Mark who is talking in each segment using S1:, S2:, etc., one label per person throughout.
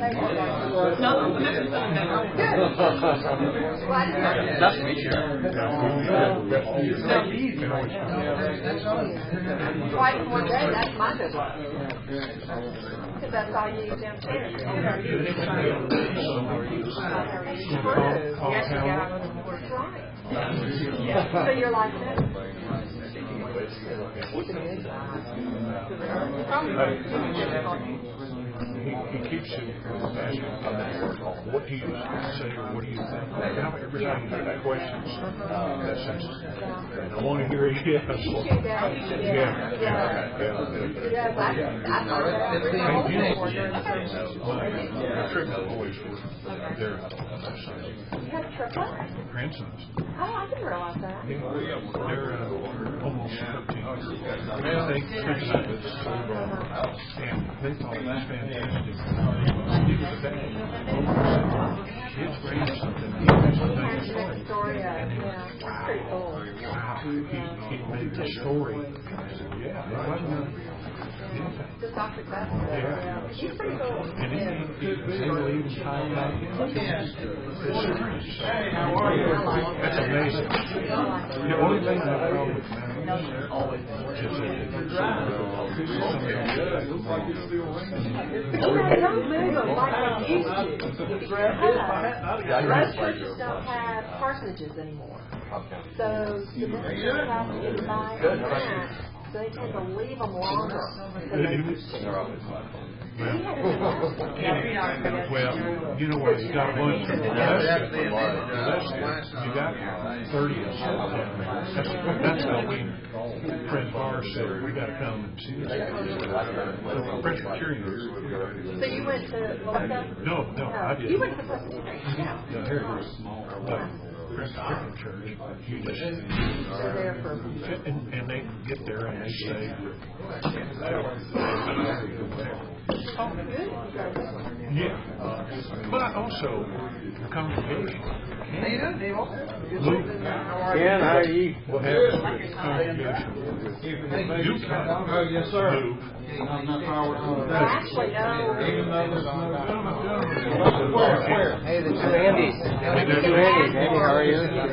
S1: No, the member's still a member. Well, I didn't know.
S2: Nice to meet you.
S1: Why didn't one day, that's my business. Because that's all you need downstairs. Yes, you got it. Right. So you're like that?
S3: He, he keeps it asking about what do you say or what do you think? And I'm every time I get questions, that's just, I want to hear a yes.
S1: Too bad. Yeah. Yeah. Yes, I, I thought that was my whole board.
S3: Trick always works. They're
S1: You had a trip up?
S3: grandsons.
S1: Oh, I didn't realize that.
S3: They're uh, almost thirteen. They think it's and they thought it was fantastic. He was a dad. His grandson, he was a
S1: Here's
S3: dad.
S1: the story of, yeah, that's pretty cool.
S3: Wow, he, he made the story. I said, Yeah, it wasn't anything.
S1: Just off the cuff. Yeah. She's pretty cool.
S3: And he, he was able to even tie it back in. It's serious.
S1: How are you?
S3: That's amazing. The only thing I found with mountains is that
S1: But you know, don't move them like they used to. If you have, most churches don't have parsonages anymore. So the minister has to invite parents, so they tend to leave them longer than they used to. He had a-
S3: well, you know what, you got one from Alaska, Alaska, you got thirty of them. That's, that's how we, Fred Barr said, we gotta come and see this. Presbyterians.
S1: So you went to Melissa?
S3: No, no, I didn't.
S1: You went to Presbyterian, yeah.
S3: No, here it is. But Presbyterian church, you just,
S1: So there for,
S3: And, and they get there and they say.
S1: oh, good.
S3: Yeah, but I also congregation. Luke
S4: Ken, how are you?
S3: will have congregation. You
S5: Oh,
S3: can
S5: yes, sir.
S3: Luke.
S1: Well, actually, no.
S4: Hey, the two Andys. The two Andys, Andy, how are you?
S1: I've been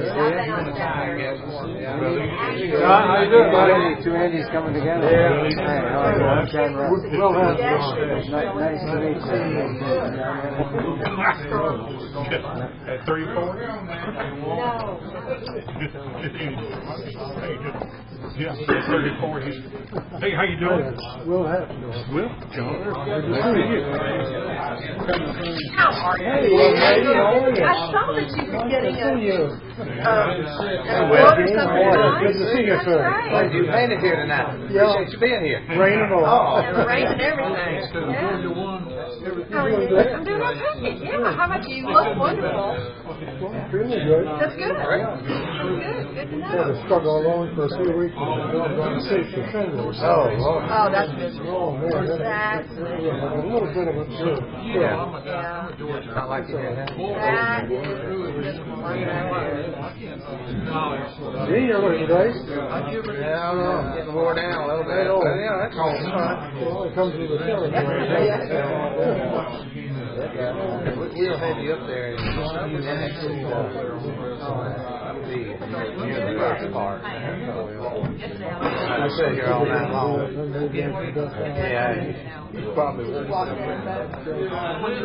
S1: on Saturday.
S4: Hey, how you doing, buddy? Two Andys coming together.
S3: Yeah.
S4: Hey, how are you? I'm John Russ.
S3: Well, that's-
S4: Nice nice to meet you.
S3: At three, four?
S1: No.
S3: Yeah, thirty-four, he's, hey, how you doing?
S4: Will Hefner.
S3: Will, John. Nice to meet you.
S1: How are you?
S4: Hey, young lady, how are you?
S1: I saw that you were getting a, a
S4: Well,
S1: order
S4: good
S1: sometimes.
S4: to see you, sir.
S1: That's
S6: Glad
S1: right.
S6: you made it here tonight. Appreciate you being here.
S4: Rain and all.
S6: Oh,
S1: And rain and everything. Yeah. How are you? I'm doing okay. Yeah. How about you? You look wonderful.
S4: Really good.
S1: That's good. Good. Good to know.
S4: struggle along for a few weeks. Oh, Lord.
S1: Oh, that's miserable. That's,
S4: A little bit of a...
S6: Yeah.
S1: yeah.
S6: I like you here now.
S1: That is miserable. You know.
S4: See you looking nice.
S6: Yeah, I don't know. Getting wore down a little bit. But yeah, that's all.
S4: Well, it comes with a challenge.
S6: We'll- We'll have you up there. And actually, uh, the universe part. I sit here all night long. Yeah. You probably won't.
S1: Walk in, but-
S6: But not really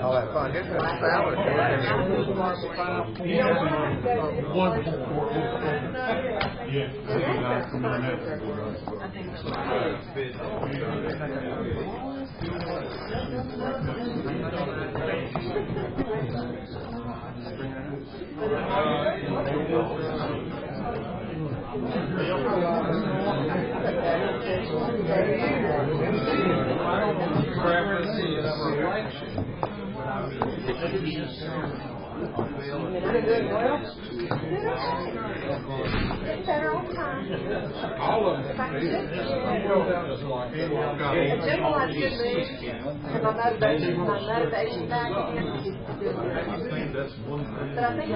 S6: all that fun. Just a salad.
S3: One, four, four, Yeah.
S1: It's their own time. If I could just get in. If General has good mood, and my motivation, my motivation back in is good. But I think it's the time that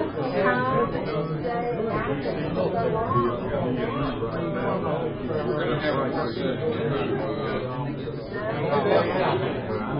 S1: you stay active so long.